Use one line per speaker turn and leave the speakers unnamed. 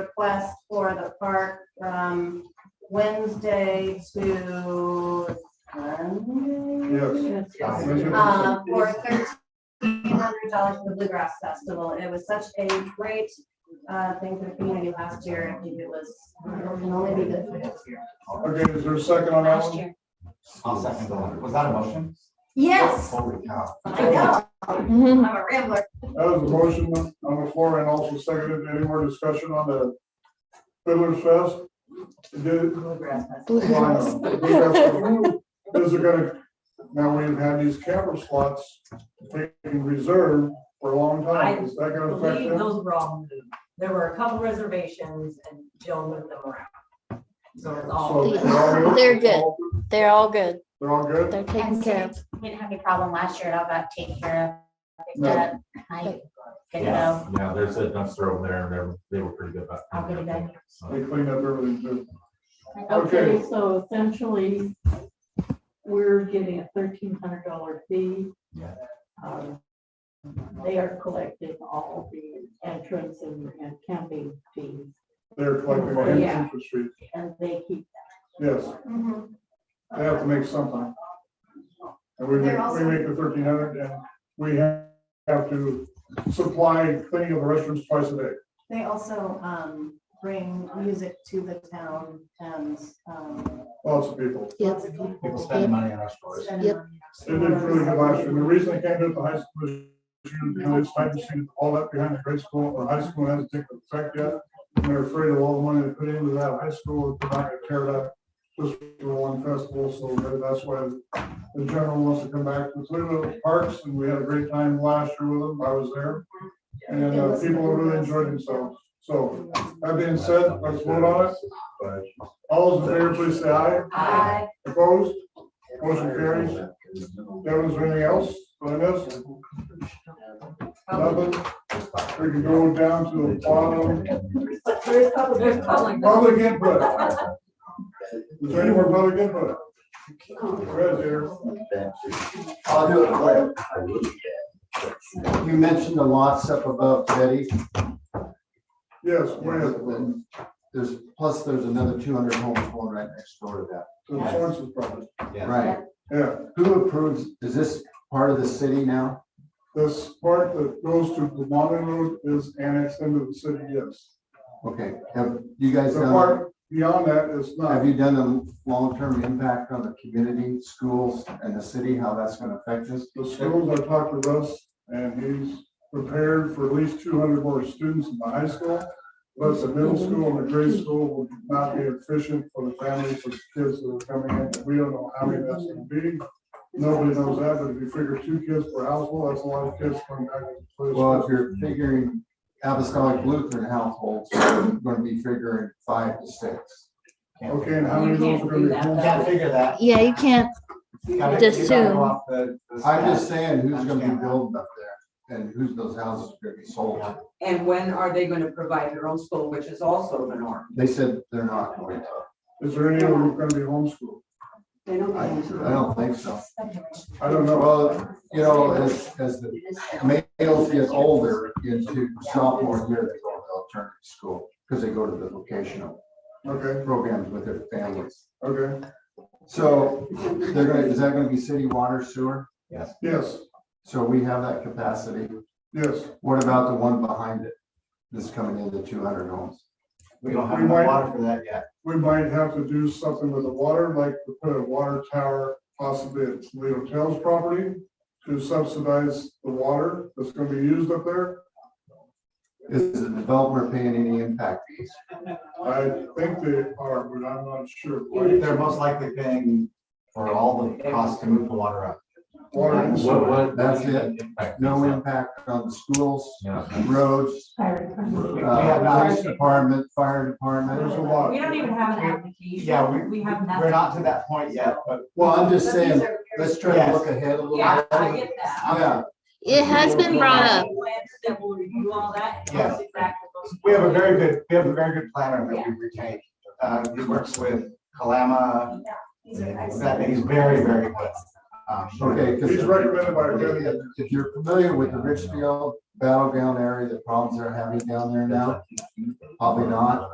request for the park from Wednesday to Sunday.
Yes.
Um, for thirteen hundred dollars for the Bluegrass Festival. And It was such a great, uh, thing for the community last year. I think it was, it can only be good for this year.
Okay, is there a second on that
Last
one?
year.
I'll second that. Was that a motion?
Yes,
Holy cow.
I know. I'm a rambler.
That was a motion on the floor and also seconded. Any more discussion on the Fiddler's Fest? Did-
Bluegrass Festival.
Is it gonna, now we've had these camera slots taken reserved for a long time. Is that gonna affect
believe
them?
those were all moved. There were a couple reservations and Jill moved them around. So it's all.
So, they're all
They're good. They're all good.
They're all good?
They're taken
And
care
so
of.
we didn't have any problem last year, it all got taken care of. picked
No.
up, I good to
Yeah,
go.
Yeah, there's a dumpster over there, and they were, they were pretty good about.
I'll get it done.
They cleaned up everything too.
Okay, so essentially, we're getting a thirteen hundred dollar fee.
Yeah.
Um, They are collecting all the entrance and and camping fees,
They're collecting the
Yeah.
entrance street.
and they keep
Yes,
Mm-hmm.
they have to make something. And we make,
They're
we
also-
make the thirteen hundred and we have have to supply cleaning of the restrooms twice a day.
They also um, bring music to the town and um,
Lots of people.
lots of people.
People spend money on our stores.
spend
Yep.
money.
They did really good last year. The reason they can't do it at the high school is because it's time to see all that behind the grade school or high school hasn't taken effect yet. And they're afraid of all the money they put into that high school, they're not gonna tear it up just for one festival. So maybe that's why the general wants to come back to Cleveland Parks and we had a great time last year with them. I was there. And uh, people really enjoyed themselves. So that being said, let's vote on it. All those in favor, please say aye.
I,
Opposed? Motion carries. Devin, is there anything else on this? Nothing? We can go down to the bottom,
But there's public, there's public.
public input. Is there any more public input? Fred here.
I'll do it quick. You mentioned the lots up above Betty.
Yes, where is it?
There's, plus there's another two hundred homes going right next door to that.
To The sources problem.
Right.
Yeah,
Who approves, is this part of the city now?
this part that goes to the Mountain Road is annexed into the city, yes.
Okay, have you guys
The
done,
part beyond that is not.
have you done a long-term impact on the community, schools and the city, how that's gonna affect us?
The schools, I talked to Russ, and he's prepared for at least two hundred more students in the high school. Plus the middle school and the grade school will not be efficient for the families, for the kids that are coming in. We don't know how many that's gonna be. Nobody knows that, but if you figure two kids per household, that's a lot of kids coming back. to play
Well, if
school.
you're figuring apostolic Lutheran households, you're gonna be figuring five to six.
Okay, and how many of those are gonna be?
Can't
homeschooled?
figure that.
Yeah, you can't, Just soon.
I'm just saying, who's gonna be building up there and who's those houses are gonna be sold to?
And when are they gonna provide their own school, which is also the norm?
They said they're not going to.
Is there any of them gonna be homeschooled?
I, I don't think so.
I don't know.
Well, you know, as, as the males get older into sophomore year, they go to alternative school because they go to the vocational
Okay,
programs with their families.
okay,
So they're gonna, is that gonna be city water sewer?
yes,
So we have that capacity.
yes.
What about the one behind it that's coming into two hundred homes?
We don't have
We might-
enough water for that yet.
we might have to do something with the water, like to put a water tower possibly at Toledo Tails property to subsidize the water that's gonna be used up there.
Is the developer paying any impact fees?
I think they are, but I'm not sure.
They're most likely paying for all the costs to move the water up.
Water and
What,
sewer.
what?
That's it. No Uh, impact on the schools,
Yeah.
roads,
We
uh,
have not,
police department, fire
There's a
department.
lot.
We don't even have an application.
Yeah, we-
We have nothing.
we're not to that point yet, but
Well, I'm just
but these
saying,
are very-
let's try to look ahead a little
Yeah, I
bit.
get that.
Yeah,
it has been brought up.
That will review all that. and
Yes.
exactly those-
we have a very good, we have a very good planner that we've retained. Uh, he works with Kalama,
These are
that he's very, very good. option.
Okay,
He's
because
recommended by our county.
if if you're familiar with the Richfield battleground area, the problems they're having down there now, probably not.